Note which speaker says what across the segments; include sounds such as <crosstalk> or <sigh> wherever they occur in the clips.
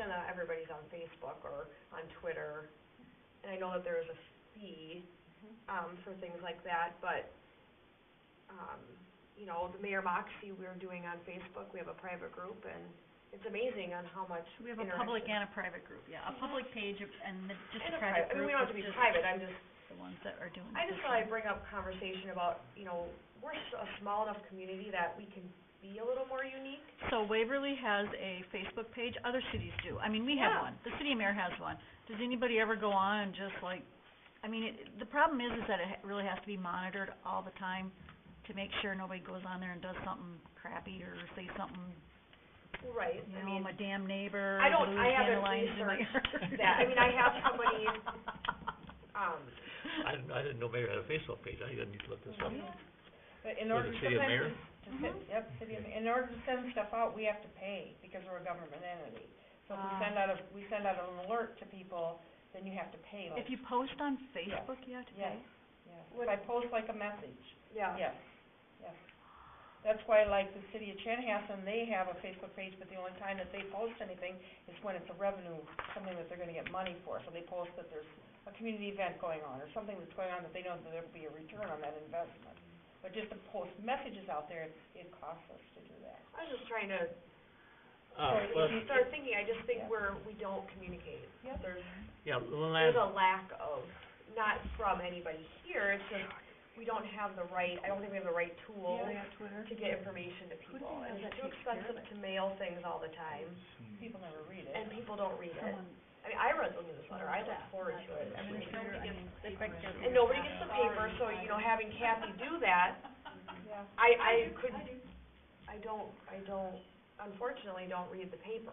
Speaker 1: not everybody's on Facebook or on Twitter. And I know that there is a fee,
Speaker 2: Mm-hmm.
Speaker 1: um, for things like that, but, um, you know, the Mayor Moxie, we're doing on Facebook, we have a private group, and it's amazing on how much
Speaker 2: We have a public
Speaker 1: interaction-
Speaker 2: and a private group, yeah, a public page of- and the, just
Speaker 1: Mm-hmm. And a
Speaker 2: a
Speaker 1: pri- I
Speaker 2: private
Speaker 1: mean,
Speaker 2: group
Speaker 1: we don't have to
Speaker 2: is
Speaker 1: be
Speaker 2: just
Speaker 1: private, I'm just,
Speaker 2: the ones that are doing
Speaker 1: I just
Speaker 2: social.
Speaker 1: thought I'd bring up conversation about, you know, we're s- a small enough community that we can be a little more unique.
Speaker 2: So Waverly has a Facebook page, other cities do, I mean, we have
Speaker 1: Yeah.
Speaker 2: one, the city mayor has one. Does anybody ever go on and just like, I mean, it, the problem is, is that it ha- really has to be monitored all the time to make sure nobody goes on there and does something crappy or say something,
Speaker 1: Right,
Speaker 2: you
Speaker 1: I mean,
Speaker 2: know, my damn neighbor,
Speaker 1: I don't-
Speaker 2: blew
Speaker 1: I haven't
Speaker 2: dandelions in my
Speaker 1: researched
Speaker 2: yard."
Speaker 1: that. I mean, I have
Speaker 2: <laughs>
Speaker 1: somebody- um,
Speaker 3: I didn't, I didn't know Mayor had a Facebook page, I didn't need to look this up.
Speaker 2: Yeah.
Speaker 4: But in
Speaker 3: Is
Speaker 4: order
Speaker 3: it
Speaker 4: to
Speaker 3: city of
Speaker 4: send,
Speaker 3: Mayor?
Speaker 4: this- to
Speaker 2: Mm-hmm.
Speaker 4: send, yep, city of, in order to send stuff out, we have to pay because we're a government entity. So if we
Speaker 2: Ah.
Speaker 4: send out a, we send out an alert to people, then you have to pay
Speaker 2: If
Speaker 4: like,
Speaker 2: you post on Facebook, you have to
Speaker 4: yes,
Speaker 2: pay?
Speaker 4: yes. If I post like a message,
Speaker 1: yeah.
Speaker 4: yes, yes. That's why like the city of Chanhassen, they have a Facebook page, but the only time that they post anything is when it's a revenue, something that they're gonna get money for. So they post that there's a community event going on or something that's going on that they know that there'll be a return on that investment. But just to post messages out there, it, it costs us to do that.
Speaker 1: I was just trying to
Speaker 3: Uh,
Speaker 4: So
Speaker 3: well,
Speaker 4: if you
Speaker 1: start thinking, I just think
Speaker 4: Yeah.
Speaker 1: we're, we don't communicate.
Speaker 4: Yep.
Speaker 1: There's,
Speaker 3: yeah, one
Speaker 1: there's
Speaker 3: last,
Speaker 1: a lack of, not from anybody here, it's just, we don't have the right, I don't think we have the right tools
Speaker 2: Twitter.
Speaker 1: to get information to people.
Speaker 2: know
Speaker 1: And
Speaker 2: that
Speaker 1: it's too
Speaker 2: takes care of
Speaker 1: expensive
Speaker 2: it?
Speaker 1: to mail things all the time,
Speaker 4: People never read it.
Speaker 1: and people don't read it.
Speaker 2: Someone-
Speaker 1: I mean, I read the newsletter, I look forward to it.
Speaker 2: I mean,
Speaker 1: Like,
Speaker 2: if nobody
Speaker 1: nobody
Speaker 2: gets-
Speaker 1: gets-
Speaker 2: if nobody gets
Speaker 1: And nobody gets the paper, so, you know, having Kathy do that,
Speaker 4: Yeah,
Speaker 1: I, I could, I don't, I don't, unfortunately, don't read the paper.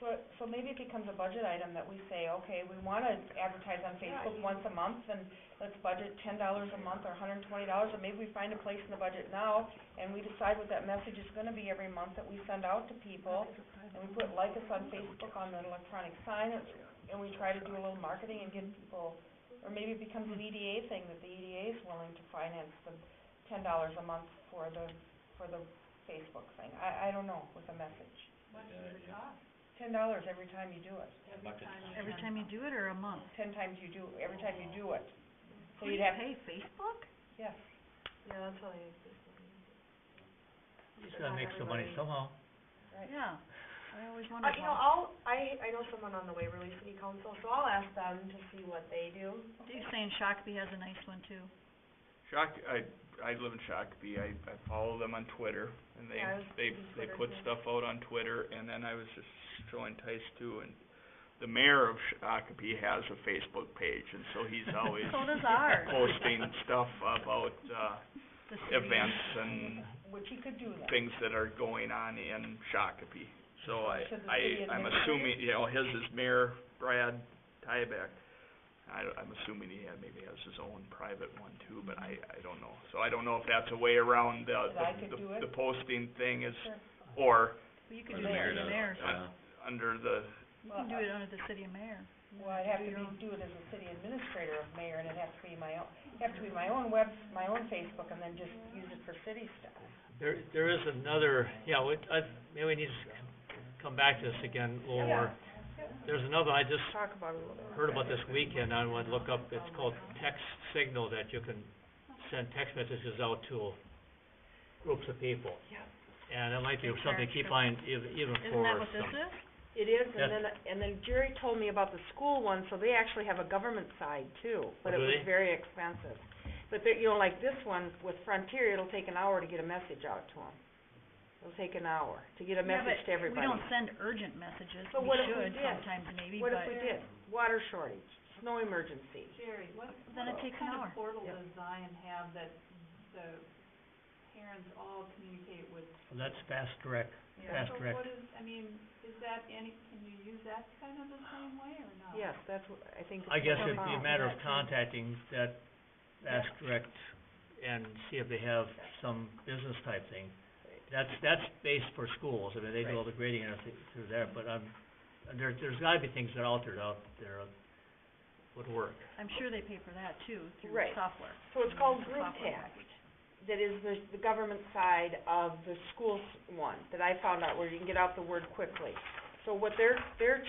Speaker 4: so, so maybe it becomes a budget item that we say, okay, we wanna advertise on
Speaker 1: Yeah,
Speaker 4: Facebook
Speaker 1: you-
Speaker 4: once a month, and let's budget ten dollars a month or hundred and twenty dollars, and maybe we find a place in the budget now, and we decide what that message is gonna be every month that we send out to people, and we put like us on Facebook on the electronic sign, and- and we try to do a little marketing and get people, or maybe it becomes an EDA thing, that the EDA is willing to finance the ten dollars a month for the, for the Facebook thing, I, I don't know, with a message. Ten dollars every time you do it,
Speaker 2: Every time you do it or a month?
Speaker 4: ten times you do, every time you do it. So
Speaker 2: We
Speaker 4: you'd have,
Speaker 2: Pay Facebook?
Speaker 4: yes,
Speaker 1: Yeah, that's what I,
Speaker 3: he's gotta make some money somehow.
Speaker 4: right.
Speaker 2: Yeah. I always
Speaker 1: uh,
Speaker 2: wonder
Speaker 1: you know, I'll,
Speaker 2: how,
Speaker 1: I, I know someone on the Waverly City Council, so I'll ask them to see what they do.
Speaker 2: Dave's saying Shakopee has a nice one too.
Speaker 5: Shock, I, I live in Shakopee, I, I follow them on Twitter, and they,
Speaker 1: Yeah, I was
Speaker 5: they,
Speaker 1: reading
Speaker 5: they
Speaker 1: Twitter
Speaker 5: put
Speaker 1: too.
Speaker 5: stuff out on Twitter, and then I was just so enticed too, and the mayor of Shakopee has a Facebook page, and so he's always
Speaker 2: <laughs>
Speaker 4: <laughs>
Speaker 2: So does ours.
Speaker 5: posting stuff about, uh,
Speaker 2: The city.
Speaker 5: events and
Speaker 4: Which he could do that.
Speaker 5: things that are going on in Shakopee. So I,
Speaker 4: Should the city
Speaker 5: I, I'm
Speaker 4: administrator?
Speaker 5: assuming, you know, his is Mayor Brad Tybeck. I, I'm assuming he had, maybe has his own private one too, but I, I don't know. So I don't know if that's a way around the,
Speaker 4: That I could
Speaker 5: the-
Speaker 4: do it?
Speaker 5: the, the posting thing is,
Speaker 4: Sure.
Speaker 5: or
Speaker 2: Well, you could
Speaker 4: Or
Speaker 2: do
Speaker 4: the
Speaker 2: it under
Speaker 4: mayor
Speaker 2: the
Speaker 4: does,
Speaker 2: mayor's.
Speaker 5: uh, under the,
Speaker 2: You
Speaker 4: Well, uh,
Speaker 2: can do
Speaker 4: I-
Speaker 2: it under the city mayor.
Speaker 4: Well, I'd have to
Speaker 2: You
Speaker 4: be,
Speaker 2: know.
Speaker 4: do it as a city administrator of mayor, and it'd have to be my own, it'd have to be my own web, my own Facebook, and then just use it for city stuff.
Speaker 3: There, there is another, yeah, we, I, maybe we need to c- come back to this again a little more. There's another, I just
Speaker 4: Talk about it a little
Speaker 3: heard about this weekend, I wanted to look up, it's called text signal, that you can send text messages out to groups of people.
Speaker 1: Yeah.
Speaker 3: And it might be something to keep on ev- even
Speaker 2: Isn't
Speaker 3: for
Speaker 2: that what this
Speaker 3: some,
Speaker 2: is?
Speaker 4: It is,
Speaker 3: Yes.
Speaker 4: and then, and then Jerry told me about the school one, so they actually have a government side too, but it
Speaker 3: Do
Speaker 4: was
Speaker 3: they?
Speaker 4: very expensive. But they, you know, like this one with Frontier, it'll take an hour to get a message out to them. It'll take an hour to get a message to
Speaker 2: We
Speaker 4: everybody.
Speaker 2: don't send urgent messages, we
Speaker 4: But what if we
Speaker 2: should
Speaker 4: did?
Speaker 2: sometimes maybe,
Speaker 4: What
Speaker 2: but
Speaker 4: if we did? Water shortage, snow emergency.
Speaker 6: Jerry, what,
Speaker 2: then it takes an
Speaker 6: kind
Speaker 2: hour.
Speaker 6: of portal
Speaker 4: Yep.
Speaker 6: does Zion have that the parents all communicate with?
Speaker 3: Well, that's fast direct, fast
Speaker 6: So
Speaker 3: direct.
Speaker 6: what is, I mean, is that any, can you use that kind of the same way or no?
Speaker 4: Yes, that's what, I think it's
Speaker 3: I guess
Speaker 4: what
Speaker 3: it'd be a
Speaker 4: about.
Speaker 3: matter of contacting that fast direct and see if they have some business type thing. That's, that's based for schools, I mean, they do all the grading and everything through there, but I'm, there, there's gotta be things that are altered out there would work.
Speaker 2: I'm sure they pay for that too, through
Speaker 4: Right.
Speaker 2: software.
Speaker 4: So it's called
Speaker 2: The
Speaker 4: group
Speaker 2: software
Speaker 4: text,
Speaker 2: package.
Speaker 4: that is the, the government side of the schools one, that I found out where you can get out the word quickly. So what they're, they're